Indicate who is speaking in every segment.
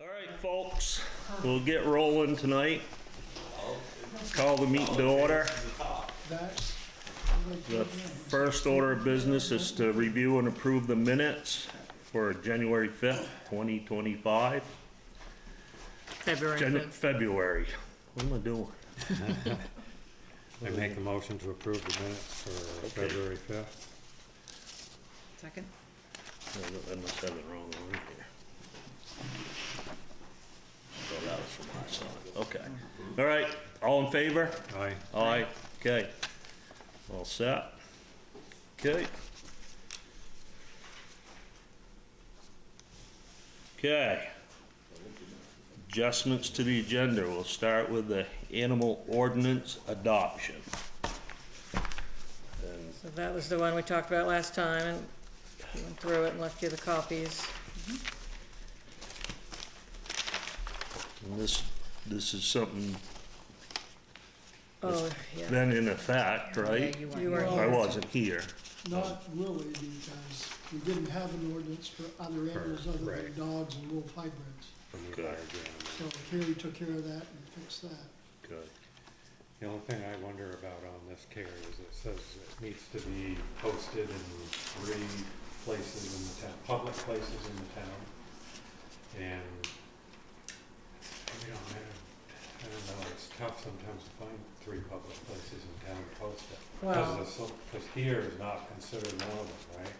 Speaker 1: All right, folks, we'll get rolling tonight. Call the meeting to order. The first order of business is to review and approve the minutes for January 5th, 2025.
Speaker 2: February
Speaker 1: Jan-
Speaker 2: 5th.
Speaker 1: February. What am I doing?
Speaker 3: I make a motion to approve the minutes for February fifth.
Speaker 2: Second?
Speaker 1: I I must have it wrong on here. So that was from last time. Okay. All right, all in favor?
Speaker 3: Aye.
Speaker 1: Aye, okay. All set? Okay. Okay. Adjustments to the agenda, we'll start with the animal ordinance adoption.
Speaker 2: So that was the one we talked about last time and we went through it and left you the copies.
Speaker 1: And this, this is something
Speaker 2: Oh, yeah.
Speaker 1: been in effect, right?
Speaker 2: You were
Speaker 1: I
Speaker 2: here.
Speaker 1: wasn't here.
Speaker 4: Not really, because we didn't have an ordinance for other animals other than
Speaker 3: right.
Speaker 4: dogs and wolf hybrids.
Speaker 3: And we
Speaker 1: Good.
Speaker 3: hired Jan.
Speaker 4: So Kerry took care of that and fixed that.
Speaker 1: Good.
Speaker 3: The only thing I wonder about on this, Carrie, is it says it needs to be posted in three places in the town, public places in the town. And we don't have, I don't know, it's tough sometimes to find three public places in town to post it.
Speaker 2: Well-
Speaker 3: Because here is not considered one of them, right?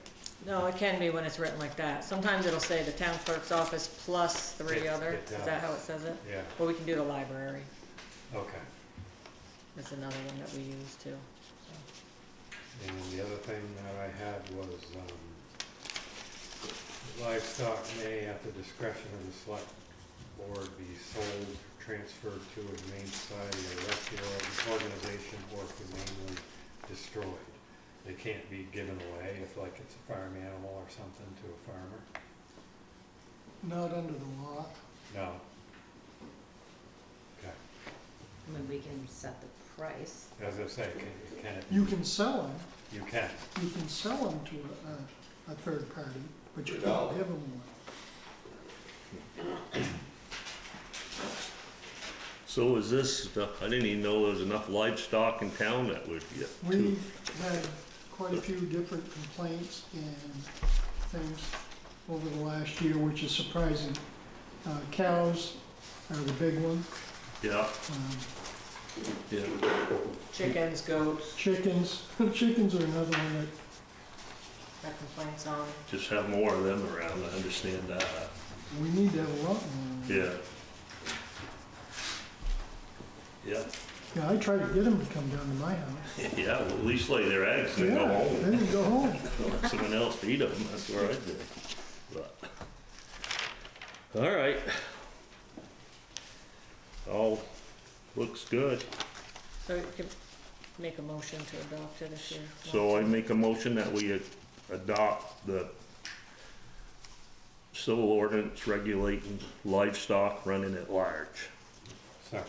Speaker 2: No, it can be when it's written like that. Sometimes it'll say the town clerk's office plus three
Speaker 3: It-
Speaker 2: other.
Speaker 3: it
Speaker 2: Is that
Speaker 3: does.
Speaker 2: how it says it?
Speaker 3: Yeah,
Speaker 2: Well, we can do the library.
Speaker 3: okay.
Speaker 2: That's another one that we use too.
Speaker 3: And the other thing that I had was, um, livestock may, at the discretion of the select board, be sold, transferred to a humane society or rescue organization, or humanely destroyed. They can't be given away if like it's a farm animal or something to a farmer.
Speaker 4: Not under the law.
Speaker 3: No. Okay,
Speaker 5: I mean, we can set the price.
Speaker 3: as I say, can, can, it-
Speaker 4: You can sell them,
Speaker 3: you can,
Speaker 4: you can sell them to a, a third party, but you can't give them one.
Speaker 1: So is this, I didn't even know there was enough livestock in town that would get two.
Speaker 4: We've had quite a few different complaints and things over the last year, which is surprising. Uh, cows are the big one,
Speaker 1: Yeah,
Speaker 4: um,
Speaker 1: yeah.
Speaker 2: Chickens, goats,
Speaker 4: chickens, chickens are another one that
Speaker 2: that complaints on.
Speaker 1: Just have more of them around, I understand that,
Speaker 4: We need to have a lot more.
Speaker 1: yeah. Yeah,
Speaker 4: Yeah, I try to get them to come down to my house.
Speaker 1: yeah, well, at least lay their eggs and then go
Speaker 4: Yeah,
Speaker 1: home,
Speaker 4: Then you go home.
Speaker 1: let someone else feed them, that's what I do. But, all right. All looks good,
Speaker 2: So you can make a motion to adopt it if you want.
Speaker 1: so I make a motion that we adopt the civil ordinance regulating livestock running at large,
Speaker 3: so,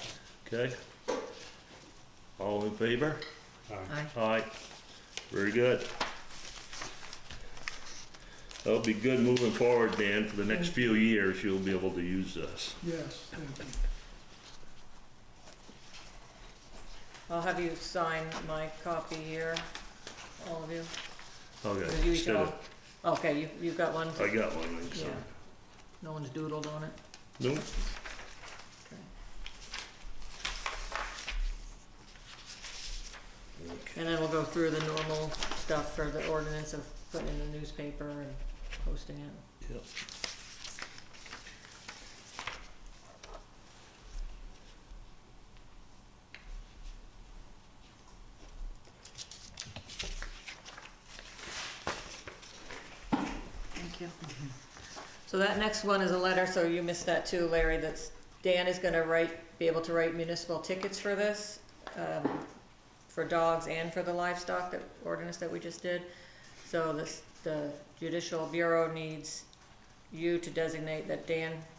Speaker 1: okay? All in favor?
Speaker 3: uh,
Speaker 2: Aye.
Speaker 1: Aye. Very good. That'll be good moving forward, Dan. For the next few years, you'll be able to use this.
Speaker 4: Yes, thank you.
Speaker 2: I'll have you sign my copy here, all of you. Or
Speaker 1: Okay.
Speaker 2: you each
Speaker 1: instead of-
Speaker 2: all- Okay, you, you've got one?
Speaker 1: I got one, I'm
Speaker 2: Yeah.
Speaker 1: sorry.
Speaker 2: No one's doodled on it?
Speaker 1: Nope.
Speaker 2: And then we'll go through the normal stuff for the ordinance of putting in the newspaper and posting it.
Speaker 1: Yep.
Speaker 2: Thank you. So that next one is a letter, so you missed that too, Larry, that's, Dan is gonna write, be able to write municipal tickets for this, um, for dogs and for the livestock, that ordinance that we just did. So this, the judicial bureau needs you to designate that Dan